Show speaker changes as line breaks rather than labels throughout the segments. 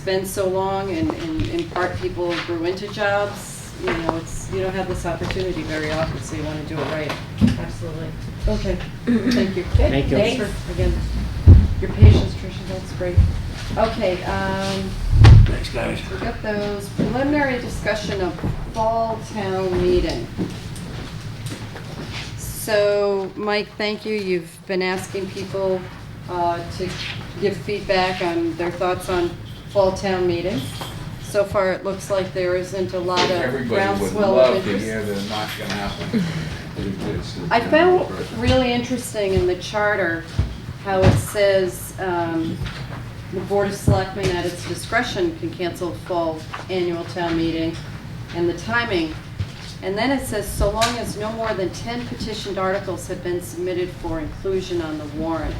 it's been so long and, and in part people grew into jobs, you know, it's, you don't have this opportunity very often, so you wanna do it right.
Absolutely.
Okay, thank you.
Thank you.
Thanks for, again, your patience, Tricia, that's great. Okay, um,
Thanks, guys.
we got those preliminary discussion of fall town meeting. So, Mike, thank you, you've been asking people, uh, to give feedback on their thoughts on fall town meeting. So far, it looks like there isn't a lot of
Everybody would
groundswell of
love
interest.
to hear that not gonna happen.
I found really interesting in the charter how it says, um, the Board of Selectmen at its discretion can cancel fall annual town meeting and the timing. And then it says, so long as no more than ten petitioned articles have been submitted for inclusion on the warrant.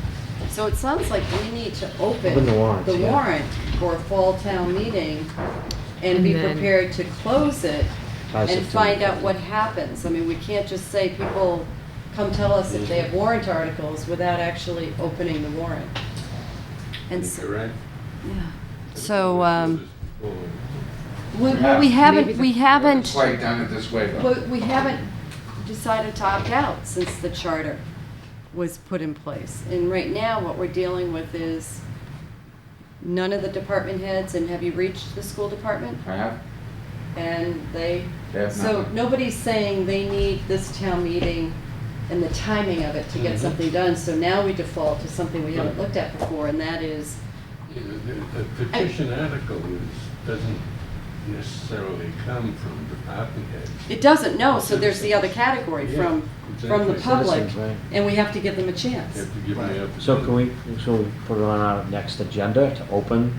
So it sounds like we need to open.
Open the warrant,
the
yeah.
warrant for a fall town meeting and
And
be
then-
prepared to close it
By
and
September
find out
15th.
what happens. I mean, we can't just say people come tell us if they have warrant articles without actually opening the warrant. And so,
right.
yeah. So, um, we- well, we haven't, we haven't,
Quite done it this way, though.
well, we haven't decided to opt out since the charter was put in place. And right now, what we're dealing with is none of the department heads, and have you reached the school department?
I have,
And they,
They have
so
nothing.
nobody's saying they need this town meeting and the timing of it to
Mhm.
get something done, so now we default to something we haven't looked at before, and that is,
You know, the- the petition article is, doesn't necessarily come from department heads.
it doesn't know, so there's the other category from, from the
Yeah, exactly.
public,
Citizens, right.
and we have to give them a
You
chance.
have to give me up.
So can we, so we put it on our next agenda to open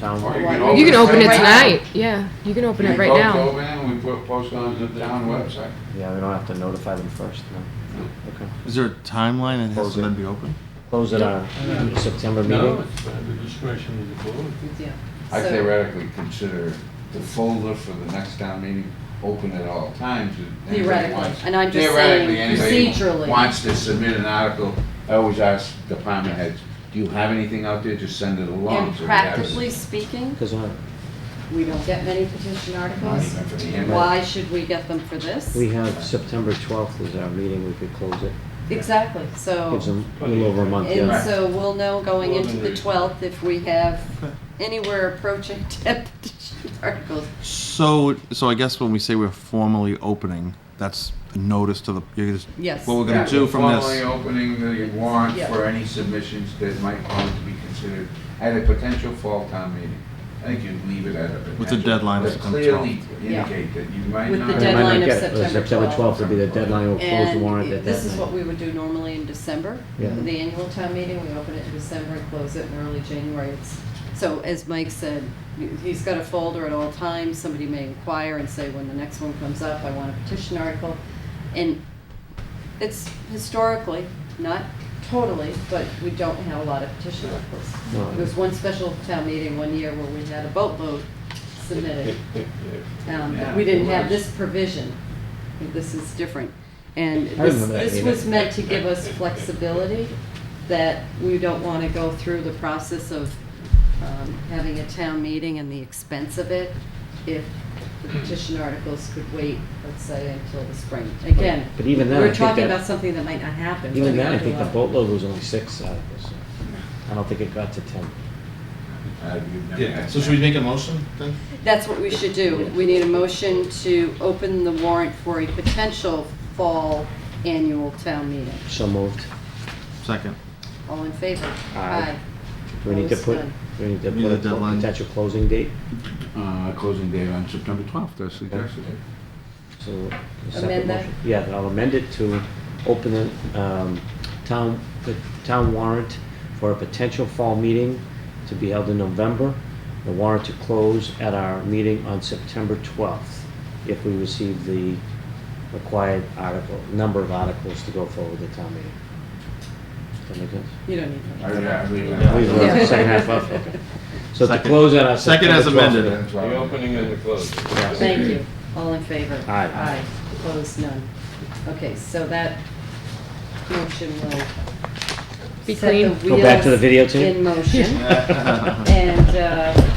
town?
Or
Why-
You can open it
Right now.
tonight, yeah, you can open it right
We both
now.
open it and we put post on the town website.
Yeah, we don't have to notify them first, no. Okay.
Is there a timeline it has
Close
to
it.
then be open?
Close it on September
No,
meeting?
it's by the discretion of the board.
Yeah.
I
So-
theoretically consider the folder for the next town meeting open at all times. if anybody
Theoretically,
wants-
and I'm just saying
Theoretically, anybody
procedurally.
wants to submit an article, I always ask department heads, do you have anything out there, just send it along.
And
so we have it."
practically speaking,
Because uh,
we don't get many petition
Not
articles.
even for the end.
Why should we get them for this?
we have September 12th is our meeting, we could close it.
Exactly, so.
Gives them a little over a month,
And
yeah.
so we'll know going into
Eleven
the
reads.
12th if we have anywhere approaching 10 petition articles.
So, so I guess when we say we're formally opening, that's a notice to the, you're just,
Yes.
what we're
Yeah,
gonna do
we're
from this.
Formally opening the warrant
Yeah.
for any submissions that might want to be considered at a potential fall town meeting. I think you leave it at a potential.
With the deadline of
but
September
Clearly
12th.
indicate that you might
With the
not.
They might
deadline
not
of
get it, but
September
September
12th.
12th would be the deadline, we'll close the warrant at
And
that
this is what
night.
we would do normally in December, the
Yeah.
annual town meeting, we open it in December and close it in early January. It's- So as Mike said, he's got a folder at all times, somebody may inquire and say, when the next one comes up, I want a petition article. And it's historically, not totally, but we don't have a lot of petition articles.
No.
There was one special town meeting one year where we had a boatload submitted. Um, but we didn't have this provision. This is different. And
I
this,
remember that
this
meeting.
was meant to give us flexibility, that we don't want to go through the process of um, having a town meeting and the expense of it if the petition articles could wait, let's say, until the spring. Again,
But even then, I
we're
think
talking
that-
about something that might not happen.
Even
We
then, I
gotta
think the
allow-
boatload was only six articles. so I don't think it got to 10.
Uh, you've never had that.
make a motion then?
That's what we should do. We need a motion to open the warrant for a potential fall annual town meeting.
So moved.
Second.
All in favor?
Aye. Do we need to
Close
put,
then.
do we need to
We need
put
a
a
deadline.
potential closing date?
Uh, closing date on September twelfth, as suggested.
So a separate
Amend that?
motion. Yeah, I'll amend it to open the um, town, the town warrant for a potential fall meeting to be held in November. The warrant to close at our meeting on September 12th if we receive the required article, number of articles to go forward the town meeting. Does that make sense?
You don't need
I-
that.
I believe
Yeah.
Leave
that.
it on the Second half up, okay. So to close at our
Second
September 12th.
as amended.
meeting.
That's all.
and the closing.
Yeah.
Thank you. All in favor?
Aye.
Aye. Opposed, none. Okay, so that motion will.
Be
set the
clean.
Go back to the
wheels
videotape?
In motion. And uh,